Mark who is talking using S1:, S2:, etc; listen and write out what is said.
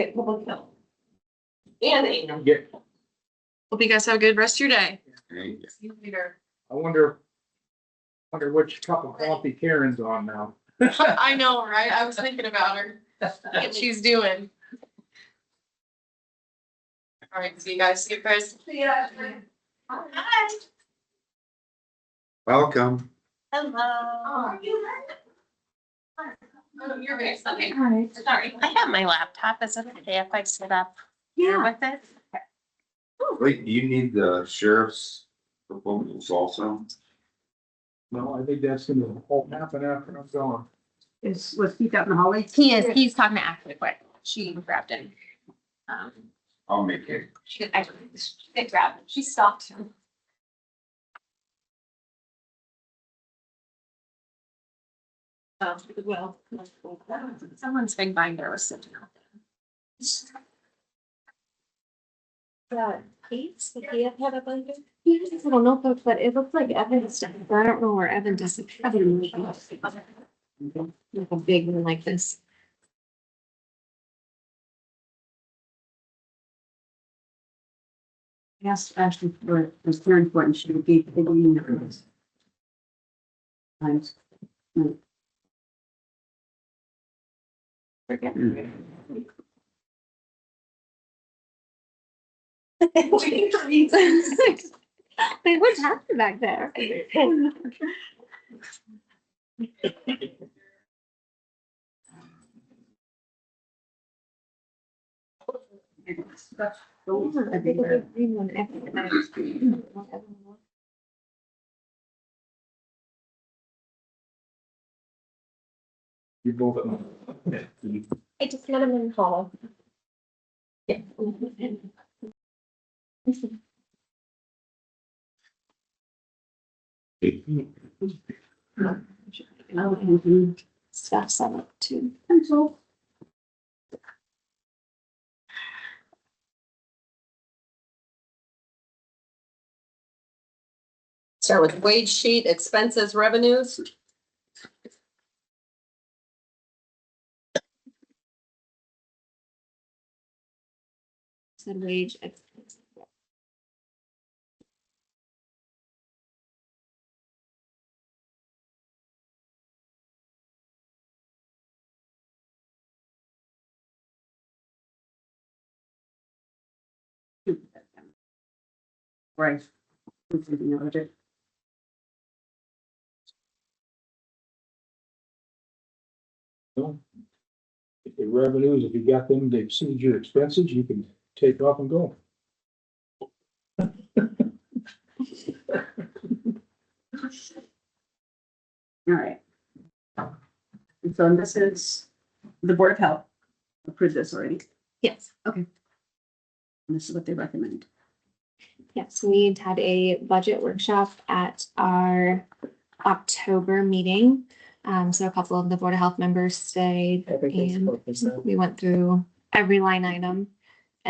S1: Okay, public health. And Ingham.
S2: Yeah.
S3: Hope you guys have a good rest of your day.
S1: See you later.
S2: I wonder, wonder which cup of coffee Karen's on now.
S3: I know, right? I was thinking about her, what she's doing. All right, see you guys. See you guys.
S1: See ya. Hi.
S4: Welcome.
S1: Hello. Are you?
S3: Oh, You're very funny.
S1: Sorry.
S5: I have my laptop. Is it okay if I sit up here with it?
S4: Wait, do you need the sheriff's proposals also?
S2: No, I think that's gonna all happen after I'm gone.
S6: Is, was Keith out in the hallway?
S5: He is, he's talking to Ashley quick. She grabbed him. Um,
S4: I'll make it.
S5: She didn't actually, she didn't grab him. She stopped him.
S1: Um, Well.
S5: Someone's big binder was sitting out there.
S7: that Kate's, that he had had a binder? He has his little notebook, but it looks like Evan's stuff, but I don't know where Evan does it. Evan made it. Like a big one like this.
S6: I asked Ashley for, it was very important, she would be, they didn't even notice. Times.
S7: Forget. Like, What happened back there? I think a big green one, Evan.
S2: You both. uh,
S7: I just met him in the hall. Yeah.
S6: Oh, and
S7: Stuff set up too.
S6: pencil.
S1: Start with wage sheet, expenses, revenues.
S7: Said wage.
S6: Right. It's in the other.
S2: If your revenues, if you got them to exceed your expenses, you can take off and go.
S6: All right. And so this is the Board of Health approved this already.
S7: Yes,
S6: And this is what they recommend.
S7: yes, we had a budget workshop at our October meeting. Um, so a couple of the Board of Health members stayed and we went through every line item.